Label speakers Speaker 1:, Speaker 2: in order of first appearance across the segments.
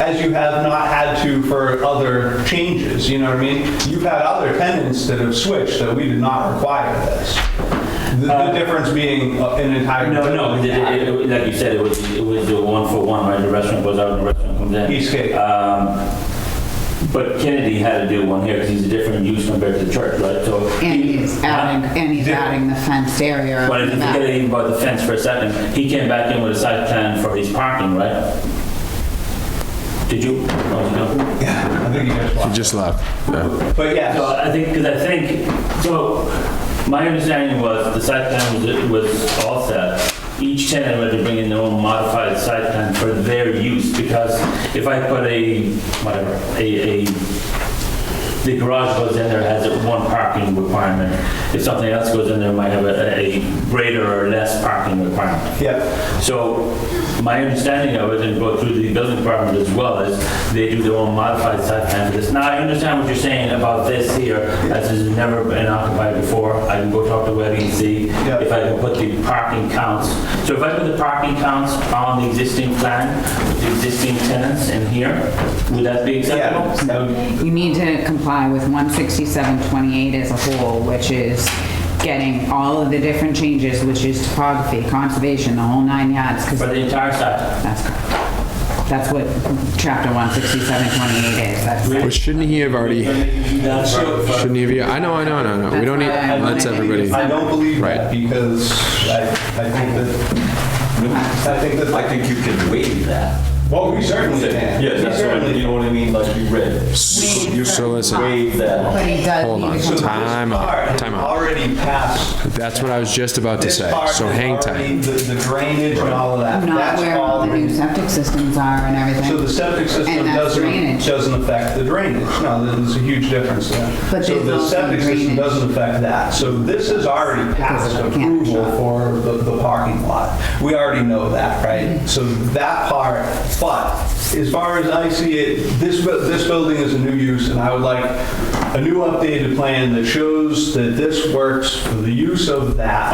Speaker 1: as you have not had to for other changes, you know what I mean? You've had other tenants that have switched that we did not require this. The- The difference being uh, an entire.
Speaker 2: No, no, it- it- it- like you said, it was, it was the one for one, right? The restaurant goes out and the restaurant comes in.
Speaker 1: Eastgate.
Speaker 2: Um, But Kennedy had to do one here because he's a different use compared to the church, right? So.
Speaker 3: And he's adding, and he's adding the fenced area.
Speaker 2: But if
Speaker 3: in
Speaker 2: you
Speaker 3: the back.
Speaker 2: forget even about the fence for a second, he came back in with a site plan for his parking, right? Did you? Oh, you don't.
Speaker 1: Yeah, I think you guys
Speaker 4: He
Speaker 1: watched.
Speaker 4: just Uh, left. Yeah.
Speaker 1: But
Speaker 2: So
Speaker 1: yes,
Speaker 2: I think, because I think, so my understanding was the site plan was, was all set. Each tenant had to bring in their own modified site plan for their use because if I put a, whatever, a, a, the garage goes in there, has a one parking requirement. If something else goes in there, it might have a, a greater or less parking requirement.
Speaker 1: yeah.
Speaker 2: So my understanding of it, and go through the building department as well, is they do their own modified site plan for this. Now, I understand what you're saying about this here, as has never been occupied before. I can go talk to Webby and see
Speaker 1: Yeah.
Speaker 2: if I can put the parking counts. So if I put the parking counts on the existing plan, with the existing tenants in here, would that be acceptable?
Speaker 1: Yeah.
Speaker 2: That would-
Speaker 3: You need to comply with 16728 as a whole, which is getting all of the different changes, which is topography, conservation, the whole nine yards, because
Speaker 2: For the entire site?
Speaker 3: that's correct. That's what chapter 16728 is. That's
Speaker 4: But shouldn't he have already,
Speaker 2: That's
Speaker 4: shouldn't he have, I know, I know, I know, I know. We don't need, let's everybody.
Speaker 1: I don't believe that
Speaker 4: Right.
Speaker 1: because I, I think that, I think that
Speaker 5: I think you can waive that.
Speaker 1: Well, we certainly can.
Speaker 5: Yeah, that's what, I- you know what I mean, like you read.
Speaker 4: You so listen,
Speaker 5: Waive that.
Speaker 3: But he does
Speaker 4: Hold
Speaker 3: need to
Speaker 4: on.
Speaker 1: So this
Speaker 3: comply.
Speaker 4: Time out,
Speaker 1: part
Speaker 4: time out.
Speaker 1: Already passed.
Speaker 4: that's what I was just about to
Speaker 1: This
Speaker 4: say.
Speaker 1: part
Speaker 4: So
Speaker 1: is
Speaker 4: hang
Speaker 1: already-
Speaker 4: tight.
Speaker 1: The the drainage and all of that.
Speaker 3: Not
Speaker 1: That's
Speaker 3: where all the new septic systems are and
Speaker 1: So the
Speaker 3: everything.
Speaker 1: septic system
Speaker 3: And that's
Speaker 1: doesn't,
Speaker 3: drainage.
Speaker 1: doesn't affect the drainage. No, there's a huge difference there.
Speaker 3: But
Speaker 1: So
Speaker 3: there's
Speaker 1: the
Speaker 3: also
Speaker 1: septic system
Speaker 3: drainage.
Speaker 1: doesn't affect that. So this is already
Speaker 3: Because
Speaker 1: past
Speaker 3: of the camp
Speaker 1: approval
Speaker 3: shop.
Speaker 1: for the, the parking lot. We already know that,
Speaker 2: Mm-hmm.
Speaker 1: right? So that part, but as far as I see it, this, bu- this building is a new use and I would like a new updated plan that shows that this works for the use of that.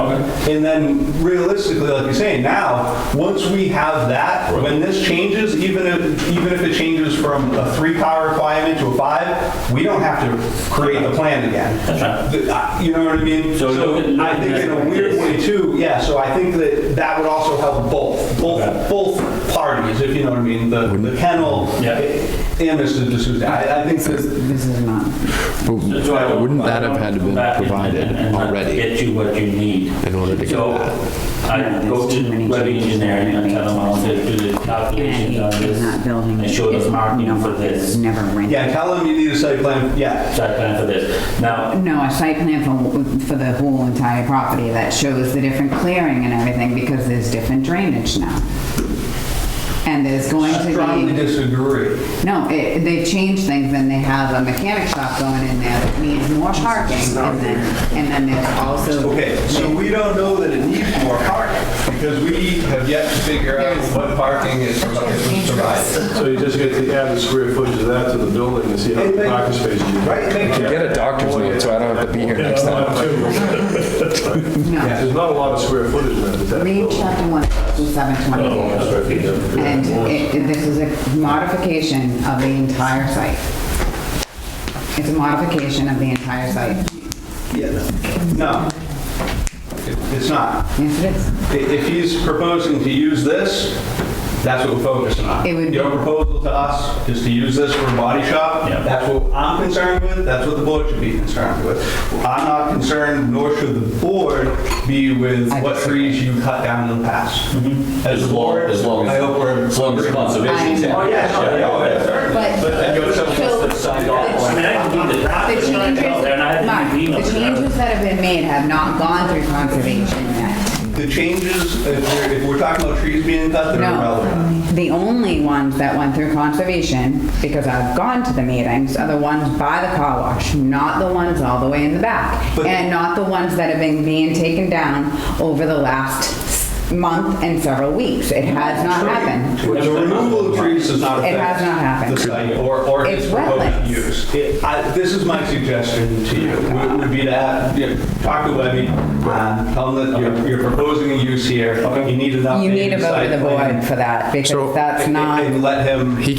Speaker 1: And then realistically, like you're saying, now, once we have that, when this changes, even if, even if it changes from a three-car requirement to a five, we don't have to create the plan again.
Speaker 2: That's right.
Speaker 1: The- I- You know what I mean?
Speaker 2: So
Speaker 1: So
Speaker 2: look at-
Speaker 1: I think in a weird way too, yeah, so I think that that would also help both, both, both parties, if you know what I mean, the the kennel
Speaker 2: Yeah.
Speaker 1: and Mr. D'Souza. I I think that,
Speaker 3: This is not,
Speaker 2: So I
Speaker 4: But
Speaker 2: don't-
Speaker 4: Wouldn't
Speaker 2: I
Speaker 4: that have
Speaker 2: don't
Speaker 4: had to
Speaker 2: go
Speaker 4: been
Speaker 2: back and- and-
Speaker 4: provided
Speaker 2: and not
Speaker 4: already?
Speaker 2: Get you what you need.
Speaker 4: In order to get
Speaker 2: So I go to web engineering and tell them I'll do the calculations on
Speaker 3: and
Speaker 2: this.
Speaker 3: he's not building.
Speaker 2: And show
Speaker 3: is
Speaker 2: the marking for
Speaker 3: number- is
Speaker 2: this,
Speaker 3: Never rented.
Speaker 1: yeah, tell them you need a site plan, yeah.
Speaker 2: site plan for this. Now,
Speaker 3: No, a site plan for, for the whole entire property that shows the different clearing and everything because there's different drainage now. And there's going to
Speaker 1: Strongly
Speaker 3: be,
Speaker 1: disagree.
Speaker 3: no, it- they've changed things and they have a mechanic shop going in there that needs more parking and then, and then there's also.
Speaker 1: Okay, so we don't know that it needs more parking because we have yet to figure out what parking is provided.
Speaker 6: So you just get to add the square footage of that to the building and see how many parking spaces you get.
Speaker 1: Right, thank you.
Speaker 4: Get a doctor's note so I don't have to be here next time.
Speaker 3: No,
Speaker 6: There's not a lot of square footage in that. that
Speaker 3: read
Speaker 6: building.
Speaker 3: chapter one, seven twenty-eight. And uh, it- it- this is a modification of the entire site. It's a modification of the entire site.
Speaker 1: Yeah, No, It- it's not.
Speaker 3: Yes, it is.
Speaker 1: I- If he's proposing to use this, that's what we're focusing on.
Speaker 3: It would be-
Speaker 1: Your proposal to us is to use this for a body shop.
Speaker 2: Yeah.
Speaker 1: That's what I'm concerned with, that's what the board should be concerned with. I'm not concerned, nor should the board be with
Speaker 3: I
Speaker 1: what trees you cut down in the past. As a
Speaker 5: Mm-hmm. As long,
Speaker 1: board,
Speaker 5: as long
Speaker 1: I hope we're...
Speaker 5: as, as long as conservation's happy.
Speaker 3: I-
Speaker 1: Oh, yeah, no, yeah, oh, yeah, certainly.
Speaker 3: But
Speaker 5: But then you're someone else that signed off
Speaker 2: I
Speaker 5: on
Speaker 2: mean, I can do the
Speaker 3: the
Speaker 2: doctor's
Speaker 3: changes,
Speaker 2: note, and I
Speaker 3: Mark,
Speaker 2: didn't even
Speaker 3: the
Speaker 2: email it.
Speaker 3: changes that have been made have not gone through conservation yet.
Speaker 1: The changes, if we're, if we're talking about trees being cut, they're irrelevant.
Speaker 3: No, the only ones that went through conservation, because I've gone to the meetings, are the ones by the car wash, not the ones all the way in the back.
Speaker 1: But-
Speaker 3: And not the ones that have been being taken down over the last month and several weeks. It has not happened.
Speaker 1: The removal of trees does not
Speaker 3: It
Speaker 1: affect.
Speaker 3: has not happened.
Speaker 1: The site or, or
Speaker 3: It's
Speaker 1: its proposed
Speaker 3: wetlands.
Speaker 1: use. It- I- This is my suggestion to you, would- would be to, have- you know, talk to Webby, um, tell them that you're, you're proposing a use here, you need an updated
Speaker 3: You need to vote
Speaker 1: site
Speaker 3: with the
Speaker 1: plan,
Speaker 3: board for that,
Speaker 4: So-
Speaker 3: because that's
Speaker 1: and-
Speaker 3: not.
Speaker 1: And let him.
Speaker 4: He